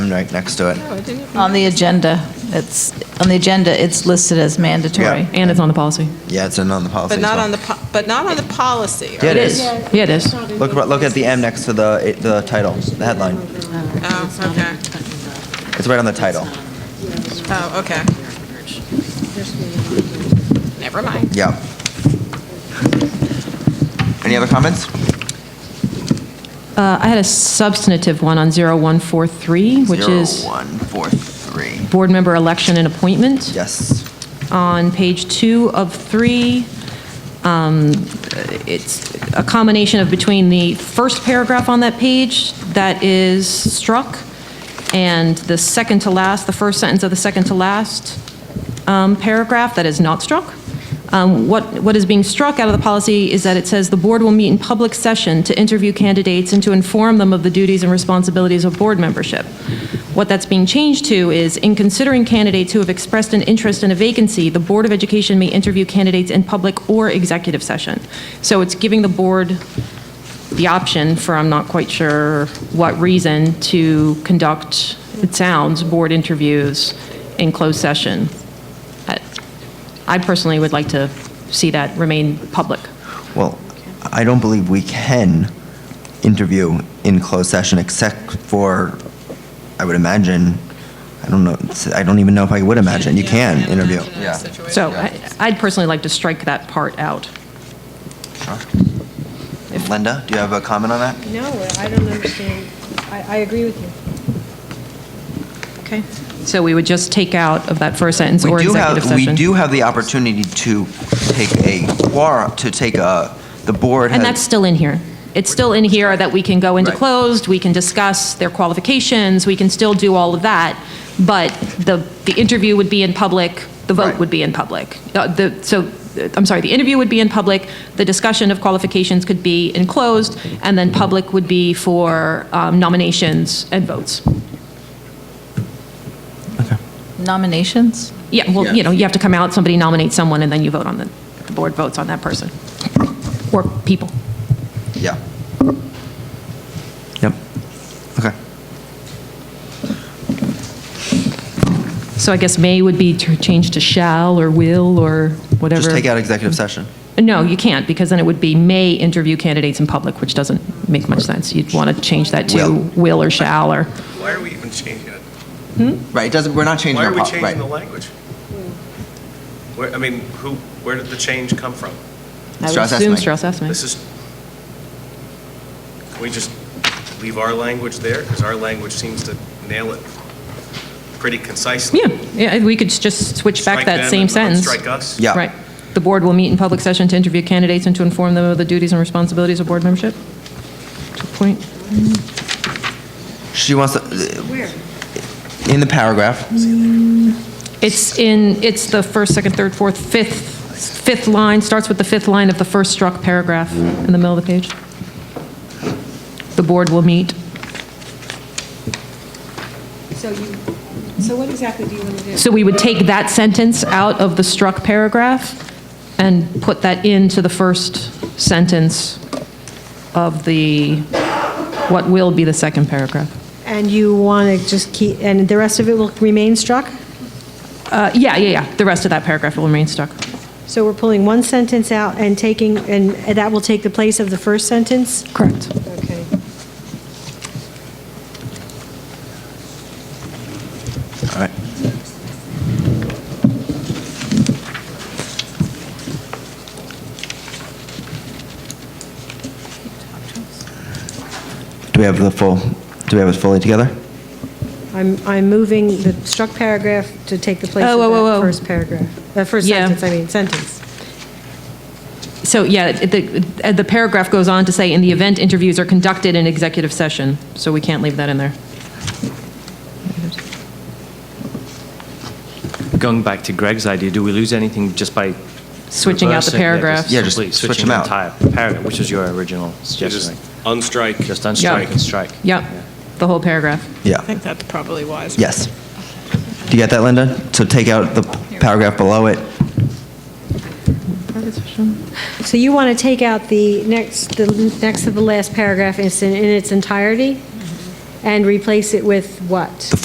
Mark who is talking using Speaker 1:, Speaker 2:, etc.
Speaker 1: right next to it.
Speaker 2: On the agenda, it's, on the agenda, it's listed as mandatory.
Speaker 1: Yeah.
Speaker 3: And it's on the policy.
Speaker 1: Yeah, it's in on the policy.
Speaker 4: But
Speaker 1: as
Speaker 4: not
Speaker 1: well.
Speaker 4: on the, po- but not on the policy.
Speaker 1: Yeah, it
Speaker 3: It
Speaker 1: is.
Speaker 3: is. Yeah, it is.
Speaker 1: Look, about- look at the M next to the, it- the title, the headline.
Speaker 4: Oh, okay.
Speaker 1: It's right on the title.
Speaker 4: Oh, okay. Never mind.
Speaker 1: Yeah. Any other comments?
Speaker 3: Uh, I had a substantive one on 0143, which is
Speaker 1: Zero, one, four, three.
Speaker 3: board member election and appointment.
Speaker 1: Yes.
Speaker 3: On page two of three, um, it's a combination of between the first paragraph on that page that is struck, and the second to last, the first sentence of the second to last um, paragraph that is not struck. Um, What, what is being struck out of the policy is that it says, "The board will meet in public session to interview candidates and to inform them of the duties and responsibilities of board membership." What that's being changed to is, "In considering candidates who have expressed an interest in a vacancy, the Board of Education may interview candidates in public or executive session." So it's giving the board the option for, I'm not quite sure what reason, to conduct, it sounds, board interviews in closed session. I- I personally would like to see that remain public.
Speaker 1: Well, I don't believe we can interview in closed session except for, I would imagine, I don't know, I don't even know if I would imagine, you can interview. Yeah.
Speaker 3: So I- I'd personally like to strike that part out.
Speaker 1: Linda, do you have a comment on that?
Speaker 5: No, I don't understand. I, I agree with you.
Speaker 3: Okay. So we would just take out of that first sentence or
Speaker 1: We do
Speaker 3: executive
Speaker 1: have,
Speaker 3: session.
Speaker 1: we do have the opportunity to take a quorum, to take a, the board
Speaker 3: And that's
Speaker 1: has,
Speaker 3: still in here. It's still in here that we can go into
Speaker 1: Right.
Speaker 3: closed, we can discuss their qualifications, we can still do all of that, but the, the interview would be in public, the vote
Speaker 1: Right.
Speaker 3: would be in public. Uh, The, so, uh, I'm sorry, the interview would be in public, the discussion of qualifications could be in closed, and then public would be for um, nominations and votes.
Speaker 2: Nominations?
Speaker 3: Yeah, well, you know, you have to come out, somebody nominates someone, and then you vote on the, the board votes on that person, or people.
Speaker 1: yeah. Yep. Okay.
Speaker 3: So I guess may would be to- changed to shall or will or whatever.
Speaker 1: Just take out executive session.
Speaker 3: No, you can't, because then it would be may interview candidates in public, which doesn't make much sense. You'd want to change that to
Speaker 1: Will.
Speaker 3: will or shall or,
Speaker 6: Why are we even changing it?
Speaker 1: Right, it doesn't, we're not changing
Speaker 6: Why
Speaker 1: our,
Speaker 6: are we
Speaker 1: pol-
Speaker 6: changing the
Speaker 1: right.
Speaker 6: language? Where, I mean, who, where did the change come from?
Speaker 3: I would
Speaker 1: Strauss
Speaker 3: assume
Speaker 1: Esme.
Speaker 3: Strauss Esme.
Speaker 6: This is, can we just leave our language there? Because our language seems to nail it pretty concisely.
Speaker 3: Yeah, yeah, we could just switch back
Speaker 6: Strike
Speaker 3: that
Speaker 6: them
Speaker 3: same
Speaker 6: and
Speaker 3: sentence.
Speaker 6: Strike us?
Speaker 1: Yeah.
Speaker 3: Right. The board will meet in public session to interview candidates and to inform them of the duties and responsibilities of board membership. To a point.
Speaker 1: She wants, to- in the paragraph,
Speaker 3: It's in, it's the first, second, third, fourth, fifth, fifth line, starts with the fifth line of the first struck paragraph in the middle of the page. The board will meet.
Speaker 5: So you, so what exactly do you want to do?
Speaker 3: So we would take that sentence out of the struck paragraph and put that into the first sentence of the, what will be the second paragraph.
Speaker 5: And you want to just keep, and the rest of it will remain struck?
Speaker 3: Uh, Yeah, yeah, yeah, the rest of that paragraph will remain struck.
Speaker 5: So we're pulling one sentence out and taking, and that will take the place of the first sentence?
Speaker 3: Correct.
Speaker 5: Okay.
Speaker 1: all right. Do we have the full, do we have it fully together?
Speaker 5: I'm, I'm moving the struck paragraph to take the place
Speaker 3: Oh,
Speaker 5: of
Speaker 3: whoa, whoa,
Speaker 5: that
Speaker 3: whoa.
Speaker 5: first paragraph, that first
Speaker 3: Yeah.
Speaker 5: sentence, I mean, sentence.
Speaker 3: So, yeah, it- the, uh, the paragraph goes on to say, "In the event interviews are conducted in executive session," so we can't leave that in there.
Speaker 7: Going back to Greg's idea, do we lose anything just by?
Speaker 3: Switching out the
Speaker 7: reversing- yeah, just
Speaker 3: paragraphs.
Speaker 1: Yeah, just
Speaker 7: completely
Speaker 1: switch
Speaker 7: Switching
Speaker 1: them
Speaker 7: the
Speaker 1: out.
Speaker 7: entire paragraph, which is your original
Speaker 6: You Just
Speaker 7: suggestion.
Speaker 6: unstrike.
Speaker 7: Just unstrike and strike.
Speaker 3: Yep, the whole paragraph.
Speaker 1: Yeah.
Speaker 4: I think that's probably wise.
Speaker 1: Yes. Do you get that, Linda? So take out the paragraph below it.
Speaker 5: So you want to take out the next, the next to the last paragraph in its- in its entirety? And replace it with what?